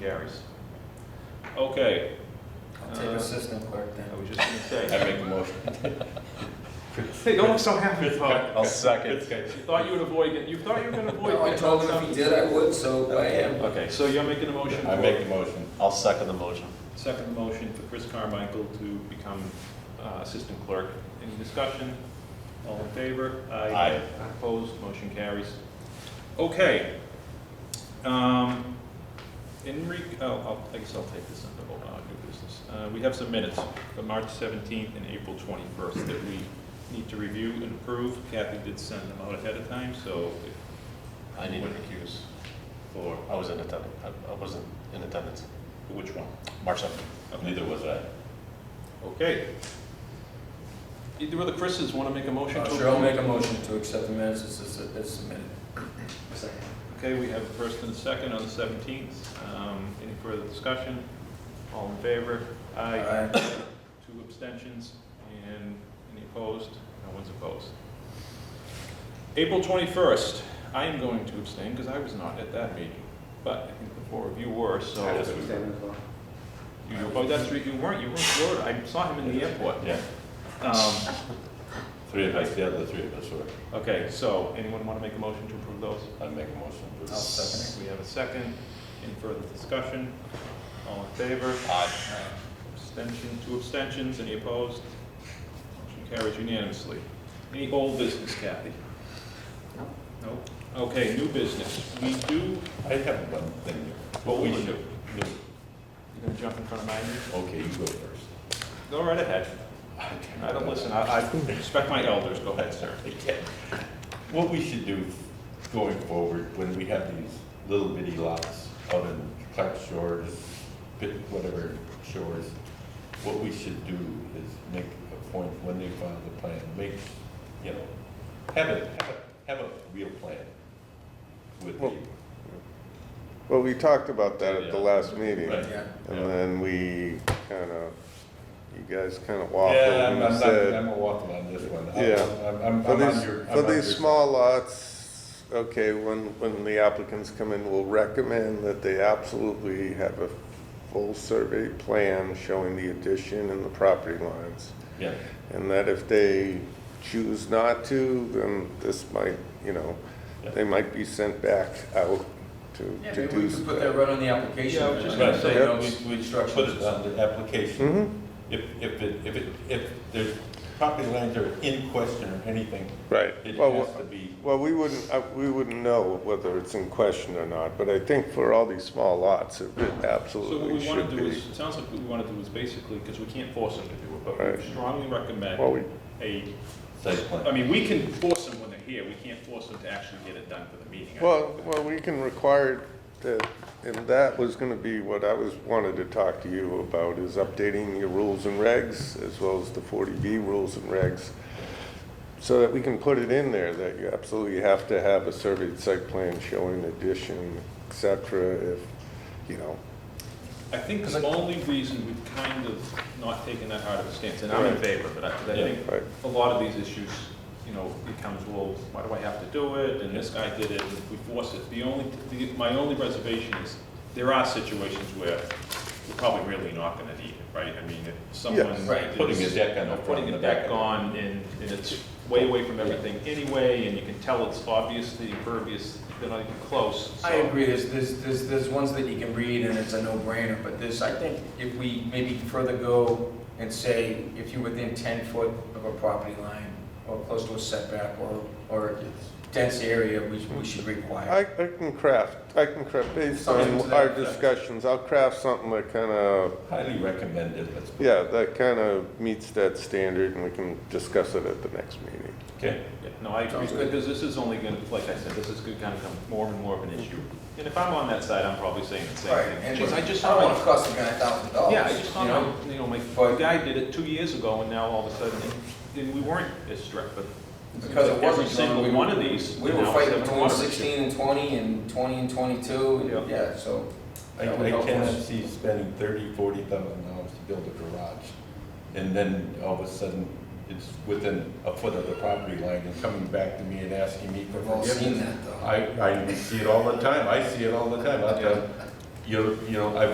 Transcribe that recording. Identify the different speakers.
Speaker 1: Carries.
Speaker 2: Okay,
Speaker 3: I'll take
Speaker 2: Uh,
Speaker 3: assistant clerk
Speaker 1: I
Speaker 3: then.
Speaker 1: was just gonna
Speaker 4: I
Speaker 1: say.
Speaker 4: make a motion.
Speaker 1: Hey, don't look so happy.
Speaker 4: I'll second.
Speaker 2: okay, you thought you would avoid, it. you thought you were gonna avoid.
Speaker 3: No, I told him if he did, I would, so uh, I am.
Speaker 2: Okay, so you're making a motion
Speaker 4: I make the
Speaker 2: for,
Speaker 4: motion. I'll second the motion.
Speaker 2: second motion for Chris Carmichael to become uh, assistant clerk. Any discussion? All in favor?
Speaker 4: Aye.
Speaker 2: Opposed, motion carries. Okay. Um, In re, oh, I'll- I guess I'll take this under old, uh, new business. Uh, We have some minutes for March 17th and April 21st that we need to review and approve. Kathy did send them out ahead of time, so if
Speaker 4: I need to recuse for, I was in attendance, I- I wasn't in attendance.
Speaker 2: Which one?
Speaker 4: March 7th. Neither was I.
Speaker 2: Okay. Either of the Chris's want to make a motion?
Speaker 3: Uh,
Speaker 2: to
Speaker 3: Sure, I'll make a motion to accept the minutes as as- as submitted.
Speaker 2: Okay, we have a first and a second on the 17th. Um, Any further discussion? All in favor? Aye.
Speaker 3: Aye.
Speaker 2: Two abstentions and any opposed? No one's opposed. April 21st, I am going to abstain because I was not at that meeting, but I think the four of you were, so.
Speaker 4: I was
Speaker 2: You- Oh, that's right, you weren't, you were in Florida. I saw him in the airport.
Speaker 4: Yeah,
Speaker 2: Um,
Speaker 4: three of us, the other three of us were.
Speaker 2: Okay, so anyone want to make a motion to approve those?
Speaker 4: I make a motion.
Speaker 3: I'll second
Speaker 2: We have a second. Any further discussion? All in favor?
Speaker 4: Aye.
Speaker 2: Abstention, two abstentions, any opposed? Motion carries unanimously. Any old business, Kathy? No. No? Okay, new business. We do,
Speaker 4: I have one thing.
Speaker 2: what we do.
Speaker 4: should-
Speaker 2: You gonna jump in front of mine?
Speaker 4: Okay, you go first.
Speaker 2: Go right ahead. I don't listen, I, I respect my elders, go ahead, sir.
Speaker 4: Okay. What we should do going forward, when we have these little bitty lots out in Clark Shores, bit- whatever shores, what we should do is make a point when they file the plan, make, you know, have a, have a, have a real plan with
Speaker 5: Well,
Speaker 4: the,
Speaker 5: Well, we talked about that at the
Speaker 4: Yeah.
Speaker 5: last meeting,
Speaker 4: right?
Speaker 3: Yeah.
Speaker 5: and then we kind of, you guys kind of waffled
Speaker 4: Yeah, I'm, I'm
Speaker 5: and
Speaker 4: not,
Speaker 5: said,
Speaker 4: I'm a waffle on this one. I'm-
Speaker 5: Yeah.
Speaker 4: I'm- I'm,
Speaker 5: for
Speaker 4: I'm on
Speaker 5: these,
Speaker 4: your. I'm
Speaker 5: for
Speaker 4: on
Speaker 5: these
Speaker 4: your-
Speaker 5: small lots, okay, when, when the applicants come in, we'll recommend that they absolutely have a full survey plan showing the addition and the property lines.
Speaker 4: Yeah,
Speaker 5: And that if they choose not to, then this might, you know, they might be sent back out to,
Speaker 3: Yeah,
Speaker 5: to
Speaker 3: maybe we
Speaker 5: do.
Speaker 3: could put that right on the application.
Speaker 2: Yeah, I was just
Speaker 4: gonna
Speaker 3: right?
Speaker 4: say,
Speaker 3: You know,
Speaker 4: we-
Speaker 3: we- we
Speaker 4: put
Speaker 3: structure
Speaker 4: it
Speaker 3: this.
Speaker 4: on the application.
Speaker 5: hmm
Speaker 4: If, if it, if it, if there's property lines are in question or anything,
Speaker 5: right.
Speaker 4: it
Speaker 5: Well,
Speaker 4: has to be,
Speaker 5: Well, we wouldn't, uh, we wouldn't know whether it's in question or not, but I think for all these small lots, it it
Speaker 2: So what
Speaker 5: absolutely
Speaker 2: we want
Speaker 5: should
Speaker 2: to do
Speaker 5: be.
Speaker 2: is, it sounds like what we want to do is basically, because we can't force them to do it, but we
Speaker 5: Right.
Speaker 2: strongly
Speaker 5: Well,
Speaker 2: recommend
Speaker 5: we,
Speaker 2: a
Speaker 4: site plan.
Speaker 2: I mean, we can force them when they're here, we can't force them to actually get it done for the meeting.
Speaker 5: well, well, we can require that, and that was gonna be what I was, wanted to talk to you about, is updating your rules and regs, as well as the 40B rules and regs, so that we can put it in there, that you absolutely have to have a surveyed site plan showing addition, et cetera, if, you know,
Speaker 2: I think the only reason we've kind of not taken that hard of a stance, and I'm in
Speaker 5: Right.
Speaker 2: favor, but I, but I
Speaker 4: Yeah.
Speaker 2: think
Speaker 5: right?
Speaker 2: a lot of these issues, you know, becomes, well, why do I have to do it, and this guy did it, and we force it. The only, the- my only reservation is, there are situations where we're probably really not gonna need it, right? I mean, if someone.
Speaker 5: Yes.
Speaker 3: Right.
Speaker 4: Putting a deck on the
Speaker 2: Or putting a
Speaker 4: front,
Speaker 2: deck on and, and it's way away from everything anyway, and you can tell it's obviously impervious, they're not even close.
Speaker 3: I
Speaker 2: so-
Speaker 3: agree, there's, there's, there's, there's ones that you can read and it's a no-brainer, but this, I think if we maybe further go and say, if you're within ten foot of a property line, or close to a setback, or, or a dense area, we, we should
Speaker 5: I,
Speaker 3: require.
Speaker 5: I can craft, I can craft, based
Speaker 3: Something to
Speaker 5: on
Speaker 3: that
Speaker 5: our
Speaker 3: effect.
Speaker 5: discussions, I'll craft something that kind of,
Speaker 4: Highly recommended, let's. put-
Speaker 5: yeah, that kind of meets that standard, and we can discuss it at the next meeting.
Speaker 4: Okay,
Speaker 2: Yeah, No, I agree,
Speaker 3: Sounds good.
Speaker 2: because this is only gonna, like I said, this is gonna kind of become more and more of an issue. And if I'm on that side, I'm probably saying the
Speaker 3: Right,
Speaker 2: same thing.
Speaker 3: and
Speaker 2: Geez, I just
Speaker 3: I don't wanna
Speaker 2: saw,
Speaker 3: cost the guy a thousand
Speaker 2: my-
Speaker 3: dollars.
Speaker 2: yeah, I just saw,
Speaker 3: you know?
Speaker 2: my- you know, my
Speaker 3: But-
Speaker 2: guy did it two years ago, and now all of a sudden, and we weren't as strict, but
Speaker 3: Because it
Speaker 2: every
Speaker 3: wasn't
Speaker 2: single
Speaker 3: done, we
Speaker 2: one
Speaker 3: were-
Speaker 2: of these.
Speaker 3: We
Speaker 2: you
Speaker 3: were
Speaker 2: know,
Speaker 3: fighting
Speaker 2: seven
Speaker 3: between
Speaker 2: water
Speaker 3: sixteen and twenty and twenty and twenty-two, and
Speaker 2: Yeah.
Speaker 3: yeah, so.
Speaker 4: I,
Speaker 3: that would
Speaker 4: I
Speaker 3: help
Speaker 4: cannot
Speaker 3: us.
Speaker 4: see spending thirty, forty thousand dollars to build a garage, and then all of a sudden, it's within a foot of the property line and coming back to me and asking me for
Speaker 3: We've all
Speaker 4: forgiveness.
Speaker 3: seen that though.
Speaker 4: I, I see it all the time, I see it all the time, out there, you know, you know, I've